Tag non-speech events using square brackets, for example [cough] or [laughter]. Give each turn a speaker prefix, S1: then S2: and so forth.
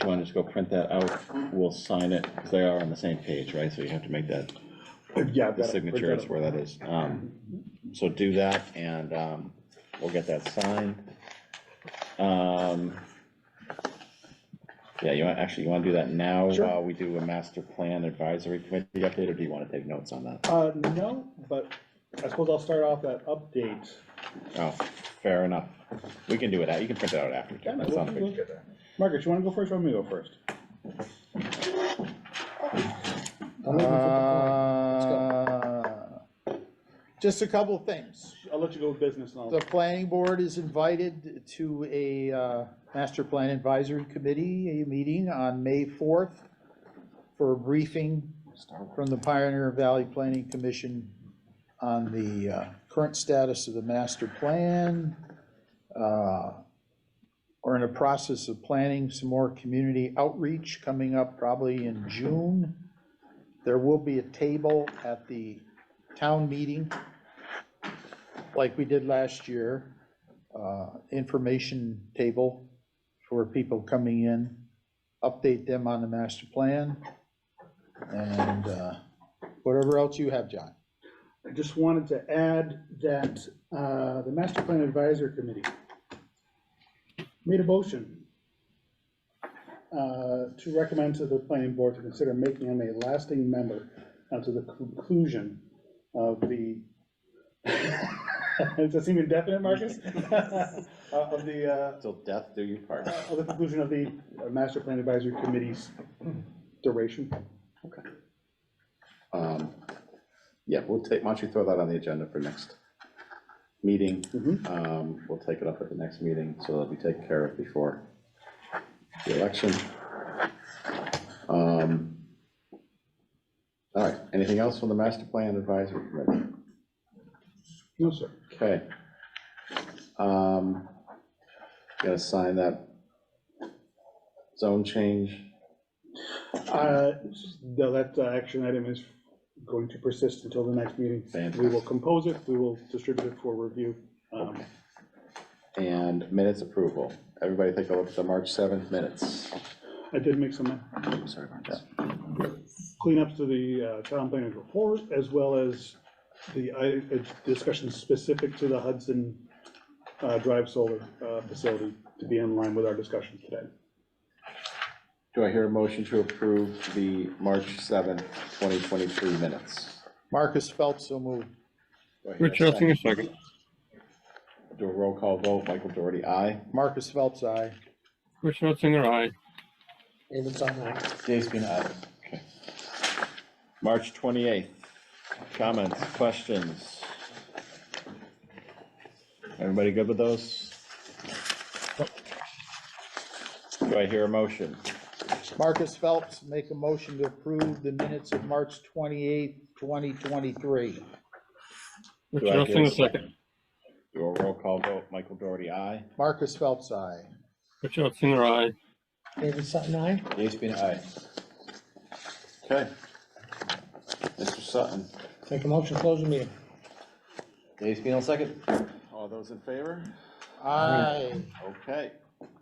S1: you wanna just go print that out, we'll sign it, because they are on the same page, right, so you have to make that,
S2: [laughs]
S3: Yeah. I've
S1: the
S3: got it
S1: signature
S3: printed
S1: is
S3: out.
S1: where that is. Um, So do that, and, um, we'll get that signed. Um, Yeah, you want, actually, you wanna do that now,
S3: Sure.
S1: while we do a master plan advisory committee update, or do you wanna take notes on that?
S3: Uh, no, but I suppose I'll start off that update.
S1: Oh, fair enough, we can do it, out. you can print it out after,
S3: Yeah,
S1: too.
S3: no,
S1: that's not a
S3: we'll-
S1: big.
S3: we'll- Margaret, you wanna go first or me go first?
S4: Uh, Just a couple of things.
S3: I'll let you go with business and
S4: The
S3: I'll,
S4: planning board is invited to a uh, master plan advisory committee, a meeting on May 4th for a briefing from the Pioneer Valley Planning Commission on the uh, current status of the master plan. uh, We're in the process of planning some more community outreach coming up probably in June. There will be a table at the town meeting like we did last year, uh, information table for people coming in, update them on the master plan, and uh, whatever else you have, John.
S2: I just wanted to add that uh, the Master Plan Advisory Committee made a motion uh, to recommend to the planning board to consider making him a lasting member until the conclusion of the, [laughs] does that seem indefinite, Marcus? Uh, Of the, uh,
S1: Till death do you part.
S2: of the uh, conclusion of the uh, Master Plan Advisory Committee's duration.
S1: Um, Yeah, we'll take, why don't you throw that on the agenda for next meeting?
S2: Mhm.
S1: Um, We'll take it up at the next meeting, so that'll be taken care of before the election. Um, All right, anything else from the master plan advisory committee?
S2: No, sir.
S1: Okay. Um, Gotta sign that zone change.
S2: Uh, No, that uh, action item is going to persist until the next meeting. We will
S1: Fantastic.
S2: compose it, we will distribute it for review. Um,
S1: And minutes approval. Everybody take a look at the March 7th minutes.
S2: I did make some
S1: Sorry about that.
S2: cleanups to the uh, town planning report, as well as the i- uh, discussions specific to the Hudson uh, Drive Solar uh, Facility to be in line with our discussions today.
S1: Do I hear a motion to approve the March seventh, 2023 minutes?
S4: Marcus Phelps, so moved.
S1: Do I hear a
S5: Rich Hessing, a second.
S1: Do a roll call vote, Michael Doherty, aye.
S4: Marcus Phelps, aye.
S5: Rich Hessing, aye.
S1: Dave's aye. Okay. March 28th, comments, questions? Everybody good with those? Do I hear a motion?
S4: Marcus Phelps, make a motion to approve the minutes of March 28th, 2023.
S5: Rich
S1: Do I hear
S5: Hessing, a second.
S1: Do a roll call vote, Michael Doherty, aye.
S4: Marcus Phelps, aye.
S5: Rich Hessing, aye.
S6: David Sutton, aye.
S1: Dave's aye. Okay. Mr. Sutton.
S6: Make a motion, to close the meeting.
S1: Dave Spino, second. All those in favor?
S4: Aye.
S1: Okay.